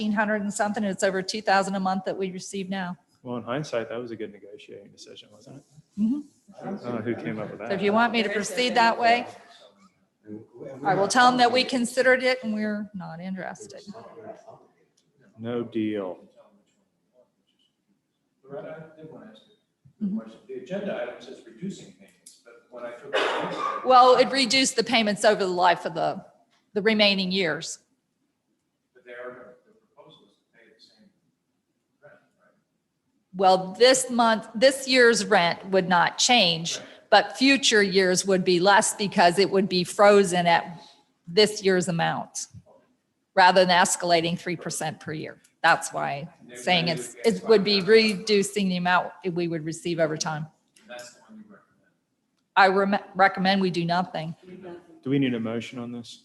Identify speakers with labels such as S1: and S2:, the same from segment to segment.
S1: 1,500 and something, and it's over 2,000 a month that we receive now.
S2: Well, in hindsight, that was a good negotiating decision, wasn't it?
S1: Mhm.
S2: I don't know who came up with that.
S1: So if you want me to proceed that way, I will tell them that we considered it and we're not interested.
S2: No deal.
S3: Loretta, I did want to ask you
S1: Mm-hmm.
S3: a question. The agenda item says reducing payments, but when I took the agenda item,
S1: Well, it reduced the payments over the life of the, the remaining years.
S3: but they are, the proposal is to pay the same rent, right?
S1: Well, this month, this year's rent would not change, but future years would be less because it would be frozen at this year's amount rather than escalating 3% per year. That's why saying it's, it would be reducing the amount we would receive over time.
S3: And that's the one you recommend.
S1: I rem- recommend we do nothing.
S2: Do we need a motion on this?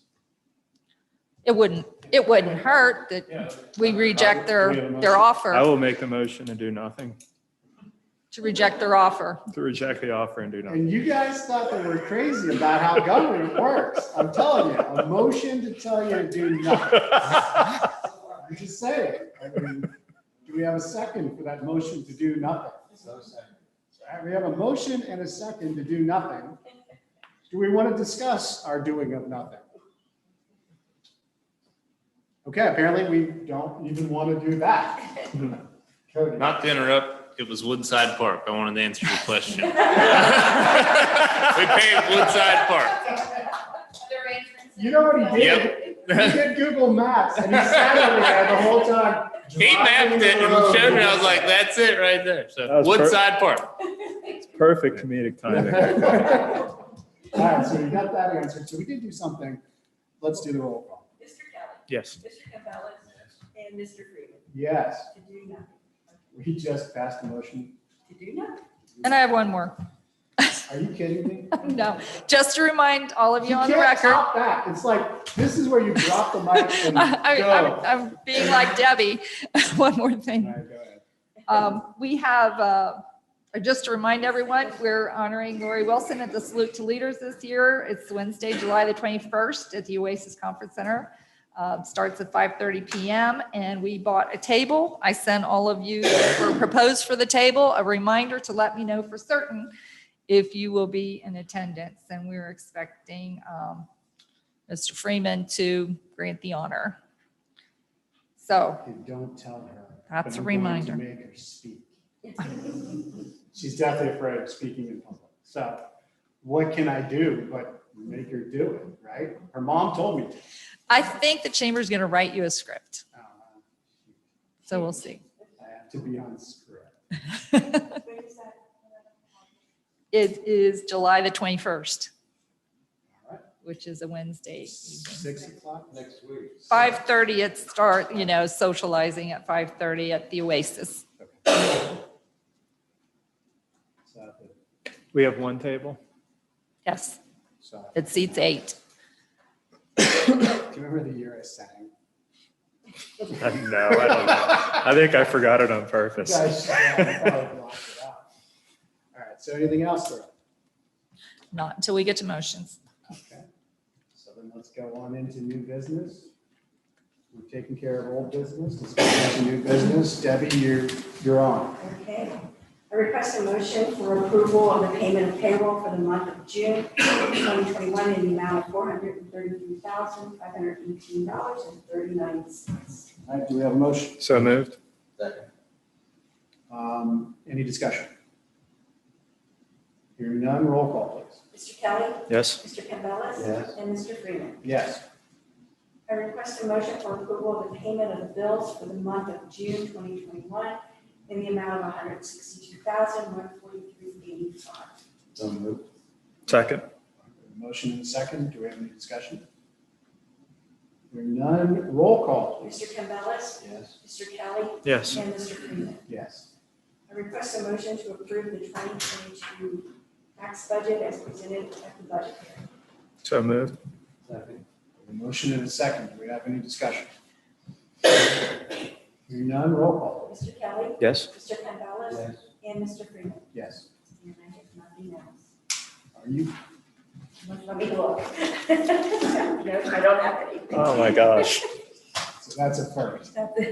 S1: It wouldn't, it wouldn't hurt that we reject their, their
S2: I
S1: offer,
S2: will make the motion to do nothing,
S1: to reject their offer.
S2: to reject the offer and do nothing.
S4: And you guys thought that we're crazy about how government works. I'm telling you, a motion to tell you to do nothing. I'm just saying. I mean, do we have a second for that motion to do nothing?
S3: So second.
S4: All right, We have a motion and a second to do nothing. Do we want to discuss our doing of nothing? Okay, apparently we don't even want to do that. Cody.
S5: Not to interrupt, it was Woodside Park. I wanted to answer your question. we paved Woodside Park.
S4: You know what he did?
S5: Yep.
S4: He did Google Maps and he sat over there the whole time.
S5: He mapped it and showed me. I was like, that's it right there.
S2: That
S5: So
S2: was per-
S5: Woodside Park.
S2: Perfect comedic timing.
S4: All right, so we got that answered. So we did do something. Let's do the roll call.
S6: Mr. Kelly,
S2: Yes.
S6: Mr. Campbell, and Mr. Freeman.
S4: Yes,
S6: To do nothing.
S4: we just passed a motion.
S6: To do nothing.
S1: And I have one more.
S4: Are you kidding me?
S1: No, just to remind all of you on the
S4: can't
S1: record.
S4: top that. It's like, this is where you drop the mic and go.
S1: I- I- I'm, I'm being like Debbie. One more
S4: All
S1: thing.
S4: right, go ahead.
S1: Um, we have, uh, just to remind everyone, we're honoring Lori Wilson at the Salute to Leaders this year. It's Wednesday, July the 21st at the Oasis Conference Center. Uh, starts at 5:30 PM and we bought a table. I sent all of you that were proposed for the table, a reminder to let me know for certain if you will be in attendance. And we're expecting, um, Mr. Freeman to grant the honor. So
S4: And don't tell her.
S1: That's
S4: but
S1: a
S4: I'm going to
S1: reminder.
S4: Make her speak. She's definitely afraid of speaking in public. So what can I do but make her do it, right? Her mom told me to.
S1: I think the chamber's going to write you a script.
S4: Uh,
S1: So we'll see.
S4: I have to be on script.
S1: It
S6: What is that?
S1: is July the 21st,
S4: All right,
S1: which is a Wednesday.
S4: Six o'clock next week.
S1: 5:30 it start, you know, socializing at 5:30 at the Oasis.
S4: So,
S2: We have one table.
S1: Yes,
S4: so,
S1: it seats eight.
S4: do you remember the year I sang?
S2: No, I don't know. I think I forgot it on purpose.
S4: Guys, yeah, I probably blocked it out. All right, so anything else there?
S1: Not until we get to motions.
S4: Okay, so then let's go on into new business. We've taken care of old business, let's go on to new business. Debbie, you're, you're on.
S6: Okay. I request a motion for approval of the payment of payroll for the month of June 2021 in the amount of $433,518.39.
S4: All right, do we have a motion?
S2: So moved.
S4: Um, Any discussion? Hearing none, roll call please.
S6: Mr. Kelly,
S2: Yes.
S6: Mr. Campbell,
S4: Yes.
S6: and Mr. Freeman.
S4: Yes,
S6: I request a motion for approval of the payment of the bills for the month of June 2021 in the amount of $162,143.85.
S2: Second.
S4: motion and second, do we have any discussion? Hearing none, roll call please.
S6: Mr. Campbellis,
S4: Yes.
S6: Mr. Kelly,
S2: Yes.
S6: and Mr. Freeman.
S4: Yes,
S6: I request a motion to approve the 2022 tax budget as presented at the budget hearing.
S2: So moved.
S4: a motion and a second, do we have any discussion? Hearing none, roll call please.
S6: Mr. Kelly,
S2: Yes.
S6: Mr. Campbellis, and Mr. Freeman.
S4: Yes.
S6: And I have nothing else.
S4: Are you?
S6: Let me look. No, I don't have anything.
S2: Oh, my gosh.
S4: so
S7: That's a first.
S4: That's it.